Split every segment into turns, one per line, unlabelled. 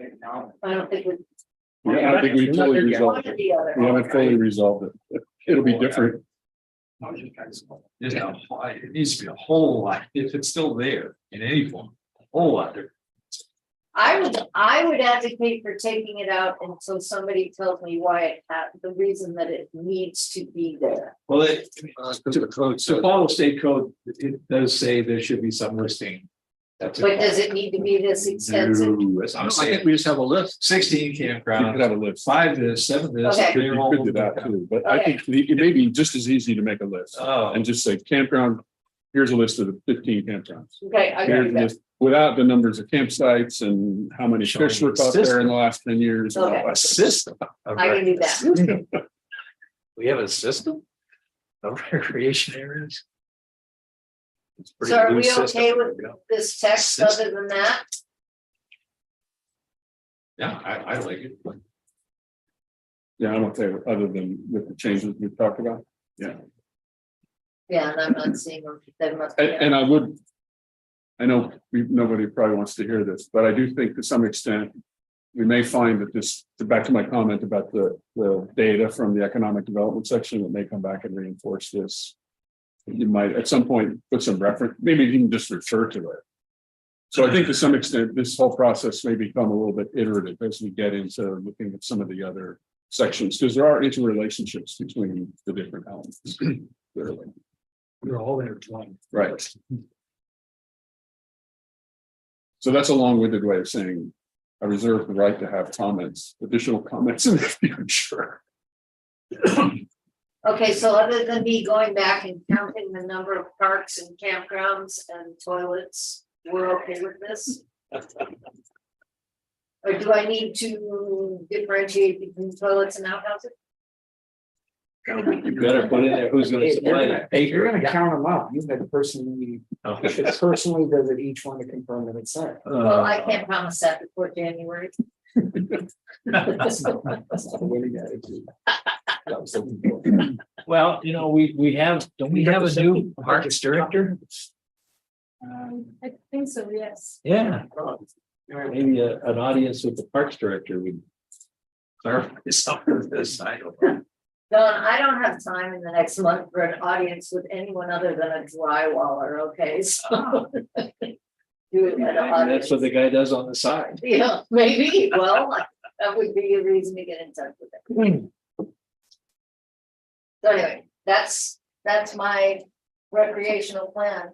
I don't think we.
I don't think we fully
One
resolved
or
it.
the other.
We haven't fully resolved it. It'll be different.
There's a, whole- it needs to be a whole lot, if it's still there in any form, a whole lot there.
I would, I would advocate for taking it out until somebody tells me why, it ha- the reason that it needs to be there.
Well, it, to to follow state code, it does say there should be some listing. That's.
But does it need to be this extensive?
No, that's what I'm saying.
we just have a list.
Sixteen
You could
campground,
have a list.
five this, seven this.
Okay.
You
they're all-
could do that too, but I think the- it may be just as easy to make a list
Oh,
and just say campground. Here's a list of the fifteen campgrounds.
Okay, I agree
Here's
with
the
that.
list Without the numbers of campsites and how many fish were caught there in the last ten years. and all
Okay.
that.
a system. of
I can do
rec-
that.
system. We have a system of recreation areas. It's a pretty
So are
loose
we
system.
okay with- This text, other than that,
Yeah, I, I like it.
Yeah, I'm okay with, other than with the changes we talked about.
yeah, and I'm not seeing them, they must. be-
And, and I would. I know we, nobody probably wants to hear this, but I do think to some extent. We may find that this, back to my comment about the, the data from the economic development section that may come back and reinforce this. You might at some point put some reference, maybe even just refer to it. So I think to some extent, this whole process may become a little bit iterative as we get into looking at some of the other sections, because there are interrelationships between the different elements. Clearly,
We're all intertwined.
right? So that's a long-winded way of saying I reserve the right to have comments, additional comments in the future.
Okay, so other than me going back and counting the number of parks and campgrounds and toilets, we're okay with this? Or do I need to differentiate between toilets and outhouses?
You better put in there who's gonna supply that.
You're gonna count them up. You've been personally, you should personally visit each one to confirm that it's there.
Well, I
Uh,
can't promise that before January.
Uh,
That's not- that's not a winning attitude. That was something more.
Well, you know, we, we have, don't we
You
have
have
a
to
new parks director?
Um, I think so, yes.
Yeah. Maybe a, an audience with the parks director would.
Clarify some of this, I don't know.
Don, I don't have time in the next month for an audience with anyone other than a drywaller, okay, so. Do it at an
And
audience.
That's what the guy does on the side.
Yeah, maybe, well, that would be a reason to get in touch with them.
Hmm.
So anyway, that's, that's my recreational plan.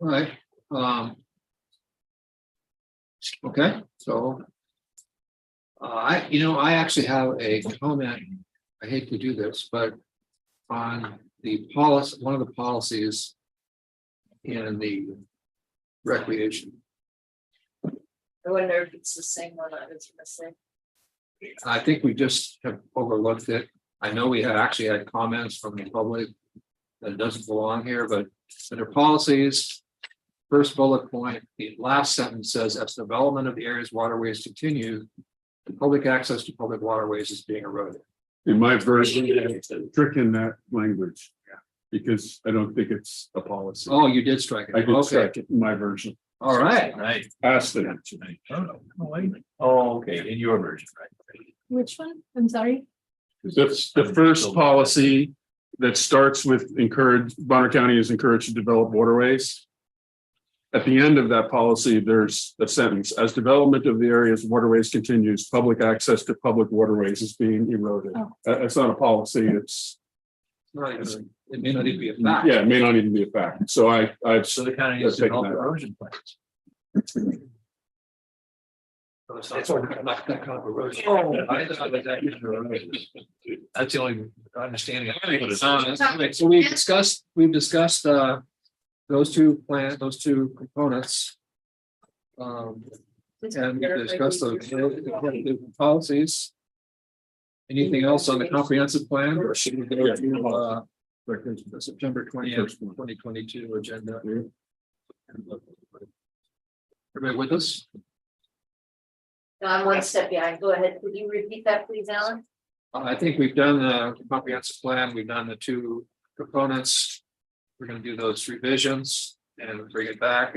Right, um. Okay, so. Uh, I, you know, I actually have a comment, I hate to do this, but on the policy, one of the policies. In the recreation,
I wonder if it's the same one I was gonna say.
I think we just have overlooked it, I know we had actually had comments from the public. That doesn't belong here, but under policies. First bullet point, the last sentence says, as development of the area's waterways continue. the Public access to public waterways is being eroded.
In my version, it's a trick in that language. Because I don't think it's a policy.
Oh, you did strike
I
it.
did
Okay,
check it in my version,
all right.
Right.
passed it.
Oh, okay, in your version, right?
Which one? I'm sorry.
That's the first policy that starts with encourage, Bonner County is encouraged to develop waterways. At the end of that policy, there's a sentence, as development of the area's waterways continues, public access to public waterways is being eroded.
Oh.
That- That's not a policy, it's,
Right, it may not even be a fact.
yeah, it may not even be a fact. So I, I've,
So the county
Let's
needs to
take
develop
that.
erosion plans.
That's all, not that kind of erosion.
I thought that that was erosion. That's the only understanding. I have.
Okay, So we discussed, we've discussed, uh, those two plans, those two components. Um, and we discussed the, the policies. Anything else on the comprehensive plan or should we go to, uh, the September twenty-first, twenty twenty-two agenda? Everybody with us?
No, I'm one step behind. Go ahead. Could you repeat that, please, Alan?
Uh, I think we've done the comprehensive plan, we've done the two components. We're gonna do those revisions. and bring it back